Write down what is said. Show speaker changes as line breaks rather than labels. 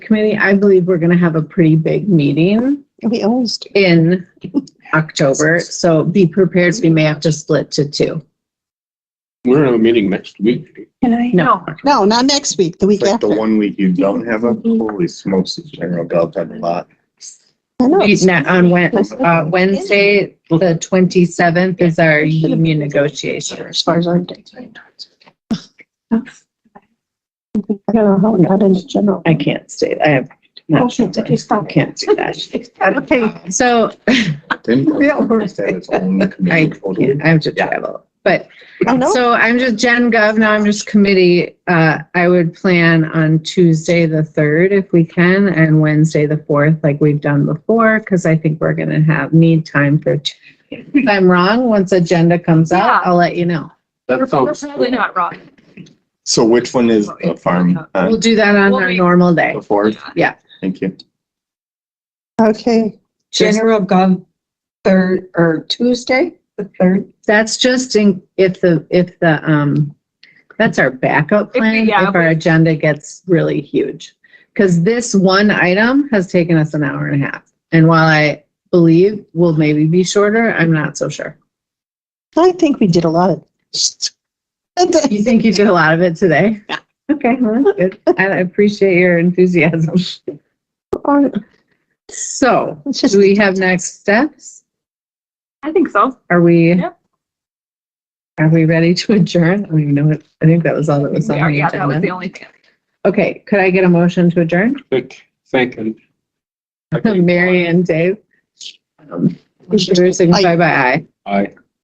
committee, I believe we're gonna have a pretty big meeting
We always do.
in October, so be prepared, we may have to split to two.
We're gonna have a meeting next week.
Can I?
No,
No, not next week, the week
Like
after.
the one week you don't have a, holy smokes, the general Gulf had a lot.
I know.
we- not on Wed, uh, Wednesday, the twenty-seventh is our union negotiation.
As far as I'm concerned. I don't know how, not in general. Oh,
I can't state, I have. not- Can't do that.
Okay.
So
Didn't.
Yeah, we're-
I
I
can't, I have to travel, but
I know.
So I'm just Gen Gov, now I'm just committee. Uh, I would plan on Tuesday, the third, if we can, and Wednesday, the fourth, like we've done before, because I think we're gonna have, need time for. If I'm wrong, once agenda comes out, I'll let you know.
That
We're
sounds,
probably not wrong.
So which one is the farm?
We'll
Uh,
do that on
Well,
our
we-
normal day.
The fourth?
Yeah.
Thank you.
Okay,
Just-
General Gov, third, or Tuesday, the third,
That's just in, if the, if the, um, that's our backup
we-
plan,
yeah,
if our
we-
agenda gets really huge. Because this one item has taken us an hour and a half. And while I believe will maybe be shorter, I'm not so sure.
I think we did a lot of.
You think you did a lot of it today? Yeah. Okay, well, that's good. I I appreciate your enthusiasm. So,
It's just-
do we have next steps?
I think so.
Are we?
Yep.
Are we ready to adjourn? I don't even know what, I think that was all that was on
Yeah,
the
yeah, that was the
agenda.
only thing.
Okay, could I get a motion to adjourn?
thick, thick and.
Mary and Dave. Um, Drew signify by aye.
I.